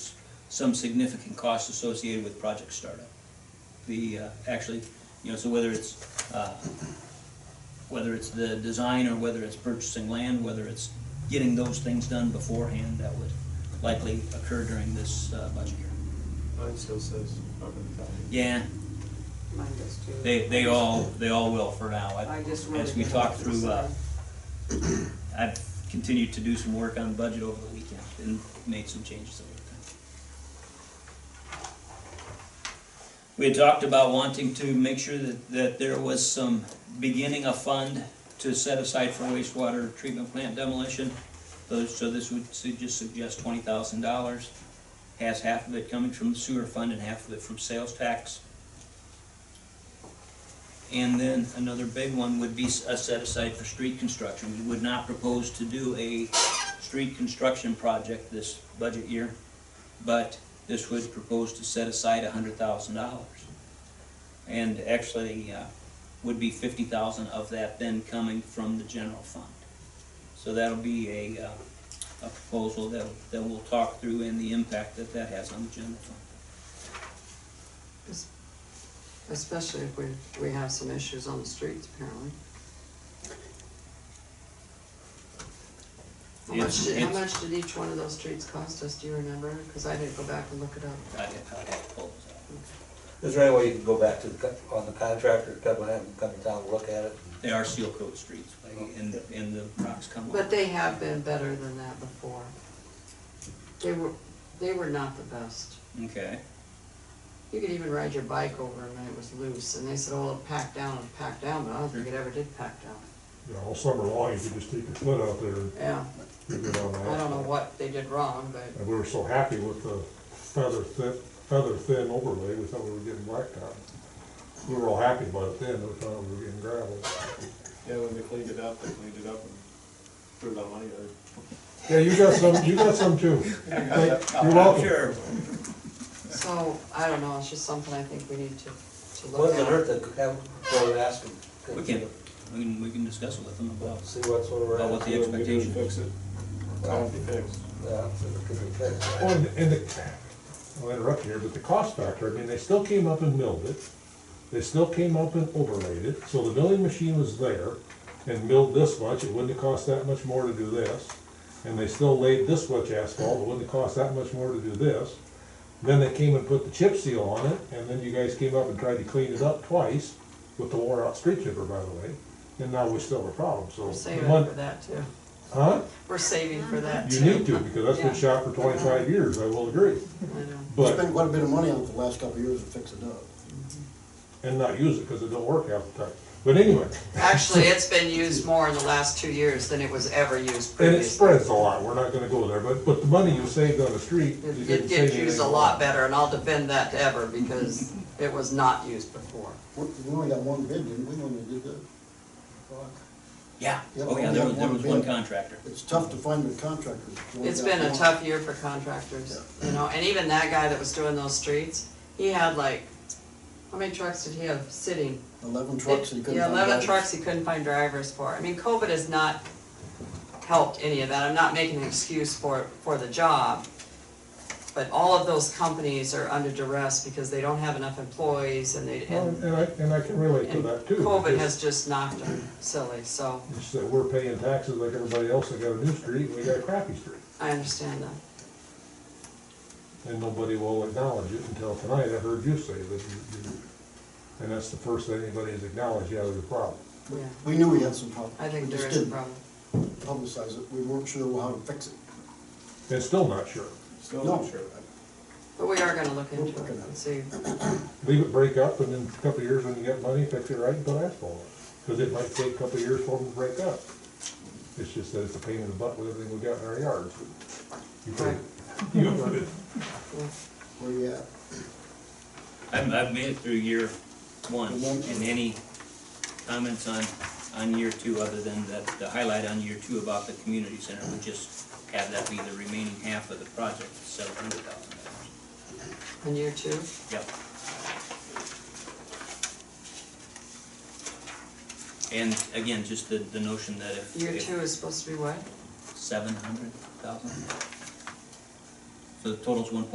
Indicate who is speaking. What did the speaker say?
Speaker 1: some significant costs associated with project startup. The, uh, actually, you know, so whether it's, uh, whether it's the design or whether it's purchasing land, whether it's getting those things done beforehand, that would likely occur during this uh, budget year.
Speaker 2: Mine still says over the top.
Speaker 1: Yeah,
Speaker 3: Mine does too.
Speaker 1: they, they all, they all will for now. I-
Speaker 3: I just wanted
Speaker 1: As we
Speaker 3: to-
Speaker 1: talk through, uh, I've continued to do some work on budget over the weekend and made some changes over the time. We had talked about wanting to make sure that, that there was some beginning a fund to set aside for wastewater treatment plant demolition. Those- So this would su- just suggest twenty thousand dollars, has half of it coming from the sewer fund and half of it from sales tax. And then another big one would be a set aside for street construction. We would not propose to do a street construction project this budget year, but this would propose to set aside hundred thousand dollars. And actually, uh, would be fifty thousand of that then coming from the general fund. So that'll be a, uh, a proposal that, that we'll talk through and the impact that that has on the general fund.
Speaker 3: Especially if we, we have some issues on the streets apparently. How much,
Speaker 1: It's-
Speaker 3: did- how
Speaker 1: it's-
Speaker 3: much did each one of those streets cost us, do you remember? Cause I didn't go back and look it up.
Speaker 1: I'd have I'd have to pull those out.
Speaker 4: Is there any way you can go back to the, co- on the contractor, Kevin, have him come to town, and look at it?
Speaker 1: They are seal coat streets, like, and, and the rocks come
Speaker 3: But
Speaker 1: off.
Speaker 3: they have been better than that before. They were, they were not the best.
Speaker 1: Okay,
Speaker 3: You could even ride your bike over them and it was loose, and they said, oh, it packed down, it packed down, but I don't think it ever did pack down.
Speaker 5: you know, all summer long, if you just take your foot out there,
Speaker 3: Yeah,
Speaker 5: you're good on that.
Speaker 3: I don't know what they did wrong, but.
Speaker 5: And we were so happy with the feather thin, feather thin overlay, we thought we were getting blacktop. We were all happy about it then, we thought we were getting gravel.
Speaker 2: Yeah, when they cleaned it up, they cleaned it up and threw it on my yard.
Speaker 5: Yeah, you got some, you got some too. Thank- You're welcome.
Speaker 1: Sure,
Speaker 3: So, I don't know, it's just something I think we need to, to
Speaker 4: What
Speaker 3: look
Speaker 4: does it hurt
Speaker 3: at.
Speaker 4: to have, go and ask him?
Speaker 1: we can, we can, we can discuss it with them about,
Speaker 4: See what's over.
Speaker 1: about what the
Speaker 2: Whatever we do to
Speaker 1: expectation is.
Speaker 2: Fix it. Time to be fixed.
Speaker 4: Yeah, so it could be fixed.
Speaker 5: Well, and- and the, I'll interrupt here, but the cost factor, I mean, they still came up and milled it. They still came up and overlaid it, so the milling machine was there and milled this much, it wouldn't have cost that much more to do this. And they still laid this much asphalt, it wouldn't have cost that much more to do this. Then they came and put the chip seal on it, and then you guys came up and tried to clean it up twice with the wore out street chipper, by the way. And now we still have a problem, so.
Speaker 3: We're saving
Speaker 5: one-
Speaker 3: for that too.
Speaker 5: Huh?
Speaker 3: We're saving for that
Speaker 5: You
Speaker 3: too.
Speaker 5: need to, because that's
Speaker 3: Yeah.
Speaker 5: been shot for twenty-five years, I will agree,
Speaker 3: I know.
Speaker 5: but.
Speaker 6: Spent quite a bit of money on it the last couple of years to fix it up.
Speaker 5: and not use it because it don't work half the time. But anyway,
Speaker 3: Actually, it's been used more in the last two years than it was ever used
Speaker 5: and it
Speaker 3: previously.
Speaker 5: spreads a lot. We're not gonna go there, but, but the money you saved on the street, you
Speaker 3: It
Speaker 5: didn't
Speaker 3: did
Speaker 5: save
Speaker 3: get used a
Speaker 5: anything.
Speaker 3: lot better, and I'll defend that to ever, because it was not used before.
Speaker 6: We we only got one bid, didn't we, when we did that?
Speaker 1: Yeah,
Speaker 6: Yeah,
Speaker 1: oh yeah,
Speaker 6: we
Speaker 1: there
Speaker 6: have
Speaker 1: was, there
Speaker 6: one
Speaker 1: was one
Speaker 6: bid.
Speaker 1: contractor.
Speaker 6: It's tough to find the contractors. We only
Speaker 3: It's
Speaker 6: got
Speaker 3: been a
Speaker 6: one.
Speaker 3: tough year for contractors, you know, and even that guy that was doing those streets, he had like, how many trucks did he have sitting?
Speaker 6: Eleven trucks that you couldn't
Speaker 3: Yeah,
Speaker 6: find.
Speaker 3: eleven
Speaker 6: drivers.
Speaker 3: trucks he couldn't find drivers for. I mean, COVID has not helped any of that. I'm not making an excuse for, for the job. But all of those companies are under duress because they don't have enough employees and they,
Speaker 5: Well,
Speaker 3: and,
Speaker 5: And I, and I can relate to
Speaker 3: and
Speaker 5: that too.
Speaker 3: COVID
Speaker 5: because
Speaker 3: has just knocked them silly, so
Speaker 5: It's that we're paying taxes like everybody else that got a new street, and we got a crappy street.
Speaker 3: I understand that.
Speaker 5: And nobody will acknowledge it until tonight. I heard you say that you, you, and that's the first thing anybody has acknowledged, yeah, there's a problem.
Speaker 3: Yeah,
Speaker 6: We knew we had some problems.
Speaker 3: I think
Speaker 6: We
Speaker 3: there is
Speaker 6: just
Speaker 3: a
Speaker 6: didn't
Speaker 3: problem.
Speaker 6: Publicize it, we weren't sure how to fix it.
Speaker 5: And still not sure.
Speaker 2: Still
Speaker 6: No.
Speaker 2: not sure.
Speaker 3: But we are gonna look
Speaker 6: We're
Speaker 3: into it
Speaker 6: working on
Speaker 3: and
Speaker 6: it.
Speaker 3: see.
Speaker 5: Leave it break up and then a couple of years when you get money, fix it right and put asphalt on. Cause it might take a couple of years for them to break up. It's just that it's a pain in the butt with everything we got in our yards. You put it, you put it,
Speaker 3: Yeah.
Speaker 6: Where you at?
Speaker 1: I've, I've made it through year one,
Speaker 6: Good one.
Speaker 1: and any comments on, on year two, other than that, the highlight on year two about the community center, would just have that be the remaining half of the project, seven hundred thousand dollars.
Speaker 3: In year two,
Speaker 1: Yep. And again, just the, the notion that if.
Speaker 3: year
Speaker 1: if-
Speaker 3: two is supposed to be what?
Speaker 1: seven hundred thousand. So the total's one point